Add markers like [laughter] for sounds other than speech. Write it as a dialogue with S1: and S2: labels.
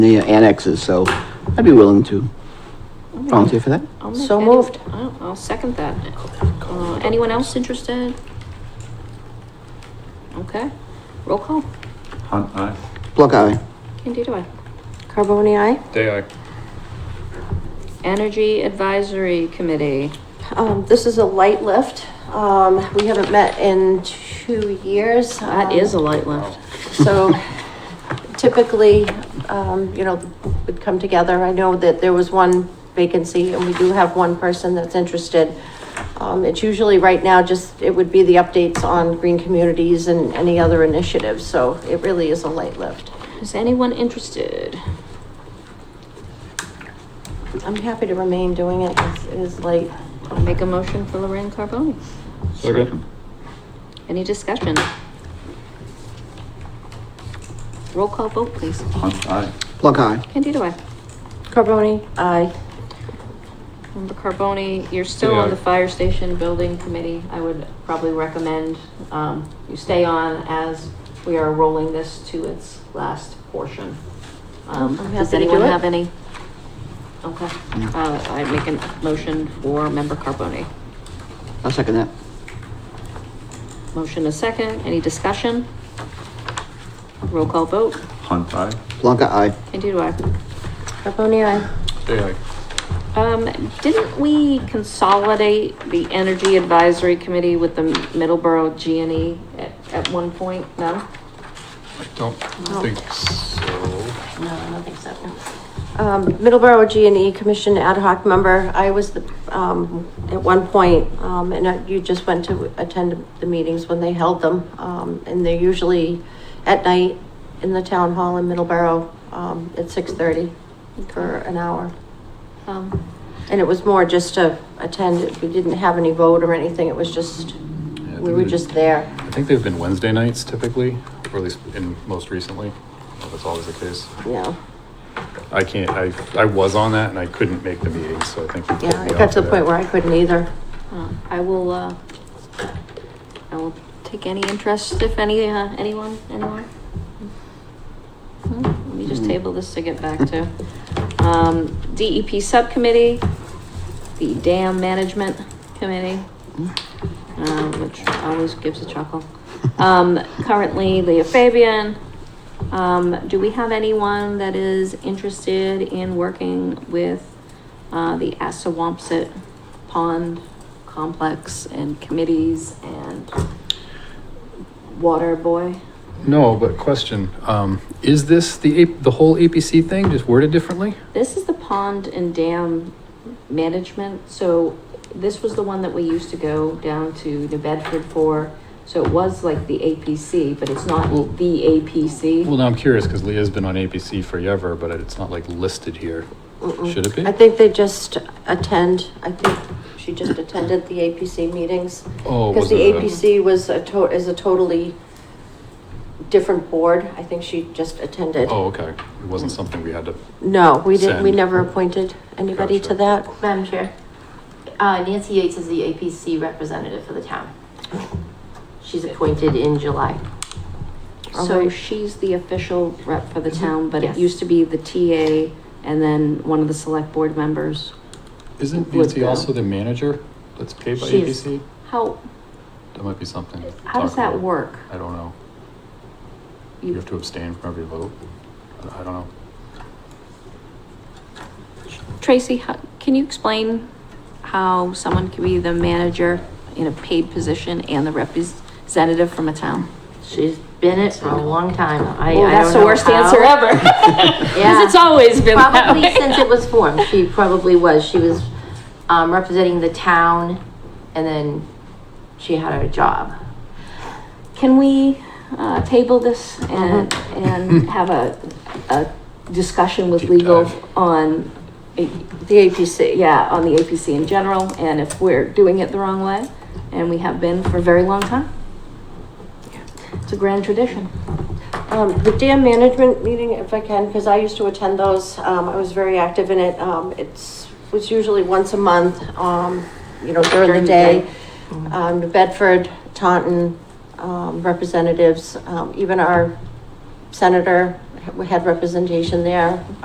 S1: the annexes, so I'd be willing to volunteer for that.
S2: I'll make
S3: So
S2: any-
S3: moved.
S2: I'll, I'll second that. Uh, anyone else interested? Okay, roll call.
S4: Hunt aye.
S1: Block eye.
S2: Candido, aye.
S3: Carboni, aye.
S4: Day aye.
S2: Energy Advisory Committee.
S3: Um, this is a light lift. Um, we haven't met in two years.
S2: That
S3: Um,
S2: is a light lift.
S3: So [laughs] typically, um, you know, would come together. I know that there was one vacancy and we do have one person that's interested. Um, it's usually right now just, it would be the updates on green communities and any other initiatives, so it really is a light lift.
S2: Is anyone interested?
S3: I'm happy to remain doing it. It's- It is light.
S2: I'll make a motion for Lorraine Carboni.
S4: Second.
S2: Any discussion? Roll call vote, please.
S4: Hunt aye.
S1: Block eye.
S2: Candido, aye.
S3: Carboni, aye.
S2: Member Carboni, you're still on the fire station building committee. I would probably recommend, um, you stay on as we are rolling this to its last portion. Um,
S3: I'm
S2: does
S3: happy to do
S2: anyone
S3: it.
S2: have any? Okay, uh, I make a motion for member Carboni.
S1: I'll second that.
S2: Motion is second. Any discussion? Roll call vote.
S4: Hunt aye.
S1: Block eye.
S2: Candido, aye.
S3: Carboni, aye.
S4: Day aye.
S2: Um, didn't we consolidate the Energy Advisory Committee with the Middleborough G and E at, at one point? No?
S5: I don't think so.
S3: No, I don't think so. no. Um, Middleborough G and E Commission ad hoc member, I was the, um, at one point, um, and I- you just went to attend the meetings when they held them. Um, and they're usually at night in the town hall in Middleborough, um, at six thirty for an hour.
S2: Um,
S3: And it was more just to attend, we didn't have any vote or anything, it was just,
S5: I
S3: we
S5: think
S3: were
S5: they-
S3: just there.
S5: I think they've been Wednesday nights typically, or at least in most recently. Well, That's always the case.
S3: Yeah,
S5: I can't, I, I was on that and I couldn't make the meeting, so I think. we pulled
S3: yeah,
S5: me
S3: it got
S5: off
S3: to
S5: of
S3: the
S5: that.
S3: point where I couldn't either.
S2: uh, I will, uh, I will take any interest if any, uh, anyone, anyone? Hmm, Let me just table this to get back to. Um, DEP Subcommittee, the Dam Management Committee. um, which always gives a chuckle. Um, currently Leah Fabian. Um, do we have anyone that is interested in working with, uh, the Assawampset Pond Complex and committees and Water Boy?
S5: No, but question, um, is this the, A- the whole APC thing just worded differently?
S2: This is the pond and dam management, so this was the one that we used to go down to New Bedford for. So it was like the APC, but it's not
S5: Well-
S2: the
S5: Well,
S2: APC.
S5: now I'm curious because Leah's been on APC forever, but it's not like listed here.
S3: Mm-mm.
S5: Should it be?
S3: I think they just attend, I think she just attended the APC meetings.
S5: Oh,
S3: Because
S5: was
S3: the
S5: it a-
S3: APC was a to, is a totally different board. I think she just attended.
S5: Oh, okay. It wasn't something we had to,
S3: No, we didn't, we
S5: Send.
S3: never appointed anybody to
S5: Gotcha.
S3: that.
S6: Madam Chair, uh, Nancy Yates is the APC representative for the town. She's appointed in July.
S2: So
S3: Alright.
S2: she's the official rep for the town, but it
S6: Yes.
S2: used to be the TA and then one of the select board members.
S5: isn't
S2: Would
S5: Nancy
S2: go.
S5: also the manager that's paid by
S6: She is.
S5: APC?
S2: How,
S5: That might be something. to
S2: how does
S5: talk
S2: that
S5: about.
S2: work?
S5: I don't know. You
S2: You-
S5: have to abstain from every vote. I I don't know.
S2: Tracy, how- can you explain how someone can be the manager in a paid position and the representative from a town?
S6: She's been it for a long time. I,
S2: Well,
S6: I
S2: that's
S6: don't
S2: the
S6: know
S2: worst
S6: how.
S2: answer [laughs] ever. Because
S6: Yeah.
S2: it's always been that
S6: Probably
S2: way.
S6: since it was formed, she probably was. She was, um, representing the town and then she had her job.
S2: Can we uh, table this and, and have a, a discussion with
S5: Deep
S2: legal
S5: dive.
S2: on the APC, yeah, on the APC in general, and if we're doing it the wrong way, and we have been for a very long time? It's a grand tradition.
S3: Um, the dam management meeting, if I can, because I used to attend those, um, I was very active in it, um, it's, was usually once a month, um, you know, during the day. Um, New Bedford, Taunton, um, representatives, um, even our senator had representation there.